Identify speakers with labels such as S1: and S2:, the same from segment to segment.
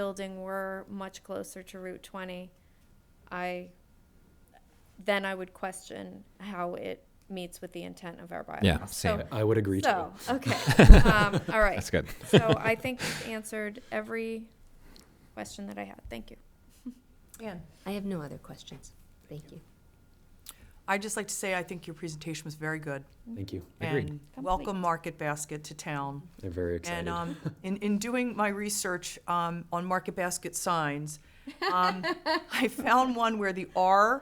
S1: building were much closer to Route 20, I, then I would question how it meets with the intent of our bylaws.
S2: Yeah,
S1: So-
S2: same.
S3: I would agree to
S1: So,
S3: it.
S1: okay, um, all right.
S2: That's good.
S1: So I think you've answered every question that I had. Thank you.
S4: Anne?
S5: I have no other questions. Thank you.
S4: I'd just like to say, I think your presentation was very good.
S3: Thank you.
S4: And
S1: Complete.
S4: welcome Market Basket to town.
S3: They're very excited.
S4: And um, in, in doing my research um, on Market Basket signs, um, I found one where the R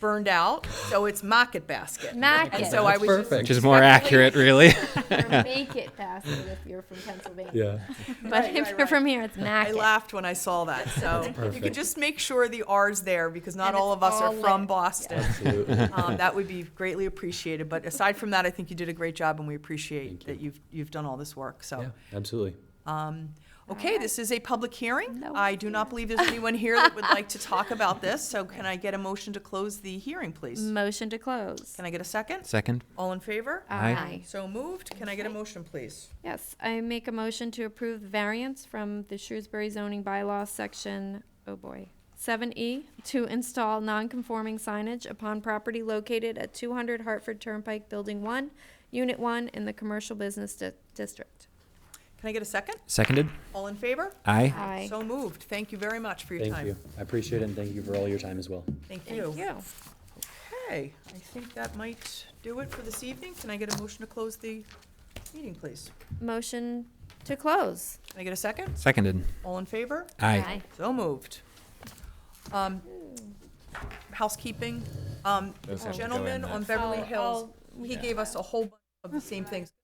S4: burned out, so it's Market Basket.
S1: Mac
S4: And
S1: it.
S4: so I was just-
S3: perfect.
S2: Which is more accurate, really.
S1: Or make it faster if you're from Pennsylvania.
S3: yeah.
S1: But
S4: Right,
S1: if
S4: right,
S1: you're
S4: right.
S1: from here, it's Mac
S4: I
S1: it.
S4: laughed when I saw that, so you could
S3: perfect.
S4: just make sure the R's there, because not
S1: And
S4: all
S1: it's
S4: of us are
S1: all
S4: from
S1: lit.
S4: Boston.
S3: Absolutely.
S4: Um, That would be greatly appreciated, but aside from that, I think you did a great job, and we
S3: Thank
S4: appreciate
S3: you.
S4: that you've, you've done all this work,
S3: Yeah,
S4: so.
S3: absolutely.
S4: Um, Okay,
S1: right.
S4: this is a public heering.
S1: No
S4: I do not believe there's anyone here that would like to talk about this, so can I get a motion to close the hearing, please?
S1: Motion to close.
S4: Can I get a second?
S2: Second.
S4: All in favor?
S2: Aye.
S4: So moved. Can I get a motion, please?
S1: Yes, I make a motion to approve the variance from the Shrewsbury zoning bylaw section, oh boy, seven E, to install non-conforming signage upon property located at two hundred Hartford Turnpike, Building One, Unit One, in the Commercial Business Di- District.
S4: Can I get a second?
S2: Seconded.
S4: All in favor?
S2: Aye.
S1: Aye.
S4: So moved. Thank you very much for your
S3: Thank
S4: time.
S3: you. I appreciate it, and thank you for all your time as well.
S4: Thank you.
S1: Thank you.
S4: Okay, I think that might do it for this evening. Can I get a motion to close the meeting, please?
S1: Motion to close.
S4: Can I get a second?
S2: Seconded.
S4: All in favor?
S2: Aye.
S4: So moved. Um, Housekeeping, um,
S2: Those have to go in
S4: gentleman
S2: that
S4: on Beverly
S1: I'll-
S4: Hills,
S1: I'll-
S4: he gave us a whole bunch of the same things.